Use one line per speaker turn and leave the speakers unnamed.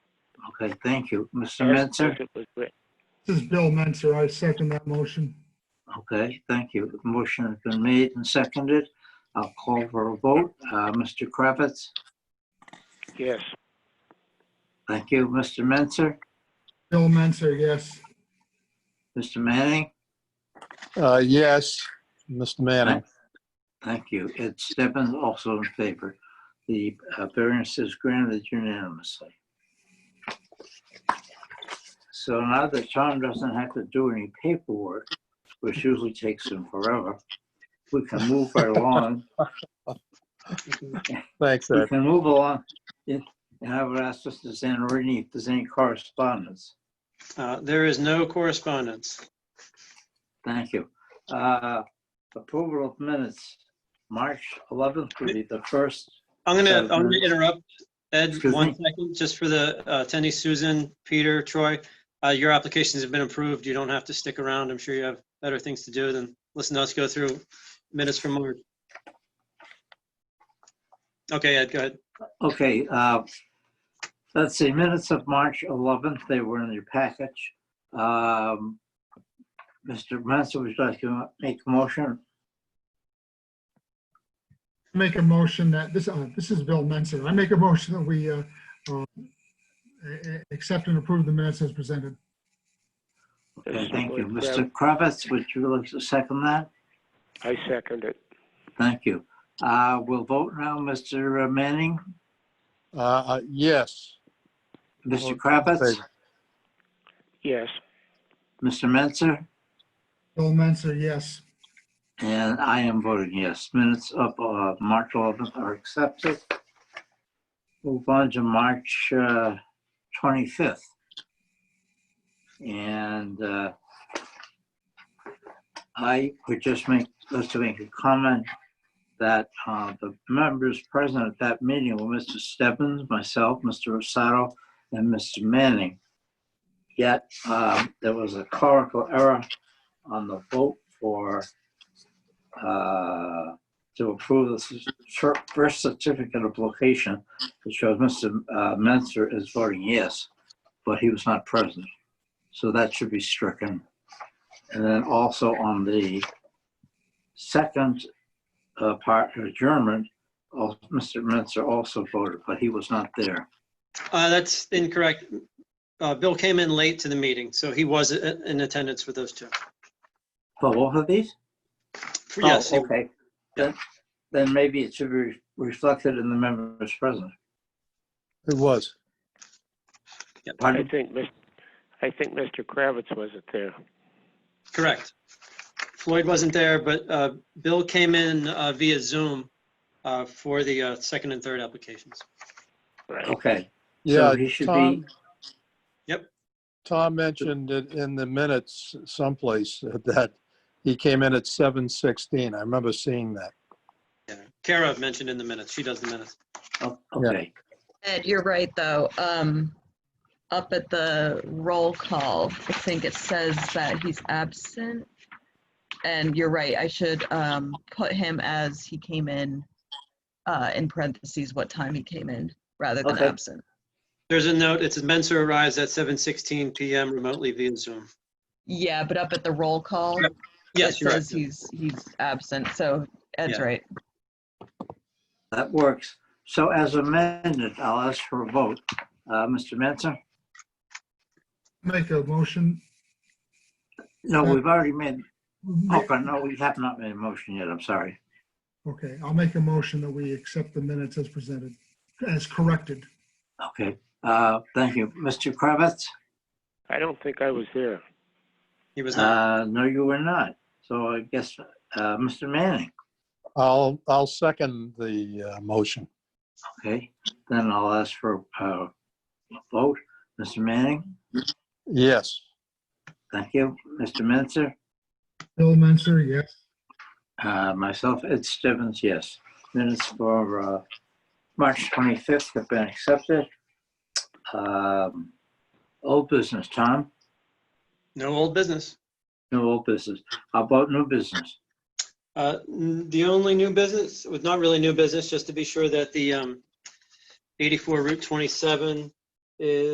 Okay, thank you. Mr.
Yes,
Mensah?
motion was gra-
This is Bill Menser. I second that motion.
Okay, thank you. The Motion has been made and seconded. I'll call for a vote. Uh, Mr. Kravitz?
Yes,
Thank you. Mr. Mensah?
Bill Menser, yes.
Mr. Manning?
Uh, Yes, Mr. Manning.
Thank you. Ed Stebbins also in favor. The uh, variance is granted unanimously. So now that Tom doesn't have to do any paperwork, which usually takes him forever, we can move right along.
Thanks,
We
Ed.
can move along. And I would ask Mr. Zanarini if there's any correspondence.
Uh, There is no correspondence.
Thank you. Uh, Approval of minutes, March 11th would be the first.
I'm gonna,
So,
I'm gonna interrupt, Ed,
Excuse
one
me?
second, just for the uh, attendees, Susan, Peter, Troy. uh, Your applications have been approved. You don't have to stick around. I'm sure you have better things to do than listen to us go through minutes from March. Okay, Ed, go ahead.
Okay, uh, let's see, minutes of March 11th, they were in your package. Um, Mr. Mansell, would you like to make a motion?
Make a motion that, this, uh, this is Bill Menser. I make a motion that we, uh, uh, a- a- accept and approve the minutes as presented.
Okay, thank you.
Yes.
Mr. Kravitz, would you like to second that?
I second it.
Thank you. Uh, We'll vote now, Mr. Manning,
Uh, uh, Yes.
Mr.
All in
Kravitz,
favor.
Yes,
Mr. Mensah,
Bill Menser, yes.
and I am voting yes. Minutes of uh, March 11th are accepted. Move on to March uh, 25th. And uh, I would just make, just to make a comment that uh, the members present at that meeting were Mr. Stebbins, myself, Mr. Rosato, and Mr. Manning. Yet um, there was a clerical error on the vote for uh, to approve the cer- cer- first certificate of location, which shows Mr. uh, Mensah is voting yes, but he was not present. So that should be stricken. And then also on the second uh, part adjournment, al- Mr. Mensah also voted, but he was not there.
Uh, That's incorrect. Uh, Bill came in late to the meeting, so he was i- in attendance for those two.
Oh, For both of these?
Yes, he-
Oh, Okay. Then- Then maybe it should be re- reflected in the members present.
It was.
I
Pardon?
think, Mis- I think Mr. Kravitz wasn't there.
Correct. Floyd wasn't there, but uh, Bill came in uh, via Zoom uh, for the uh, second and third applications.
Right.
Okay.
Yeah,
So he should be,
Tom.
Yep.
Tom mentioned it in the minutes someplace that he came in at 7:16. I remember seeing that.
Yeah. Kara mentioned in the minutes, she does the minutes.
oh, okay.
Ed, you're right, though. Um, Up at the roll call, I think it says that he's absent. And you're right, I should um, put him as he came in, uh, in parentheses, what time he came in, rather than
Okay.
absent.
There's a note, it says Mensah arrives at 7:16 PM remotely via Zoom.
Yeah, but up at the roll call,
Yep,
it
Yes, you're right.
says he's, he's absent, so Ed's
Yeah.
right.
That works. So as amended, I'll ask for a vote. Uh, Mr. Mensah?
Make a motion.
No, we've already made, oh, but no, we have not made a motion yet. I'm sorry.
Okay, I'll make a motion that we accept the minutes as presented, as corrected.
Okay, uh, thank you. Mr. Kravitz?
I don't think I was there.
He was not.
Uh, no, you were not. So I guess, uh, Mr. Manning,
I'll, I'll second the uh, motion.
okay? Then I'll ask for, uh, a vote. Mr. Manning?
Yes.
Thank you. Mr. Mensah?
Bill Menser, yes.
Uh, myself, Ed Stevens, yes. Minutes for uh, March 25th have been accepted. Um, Old business, Tom?
No old business.
No old business. How about new business?
Uh, n- The only new business, was not really new business, just to be sure that the um, 84 Route 27 is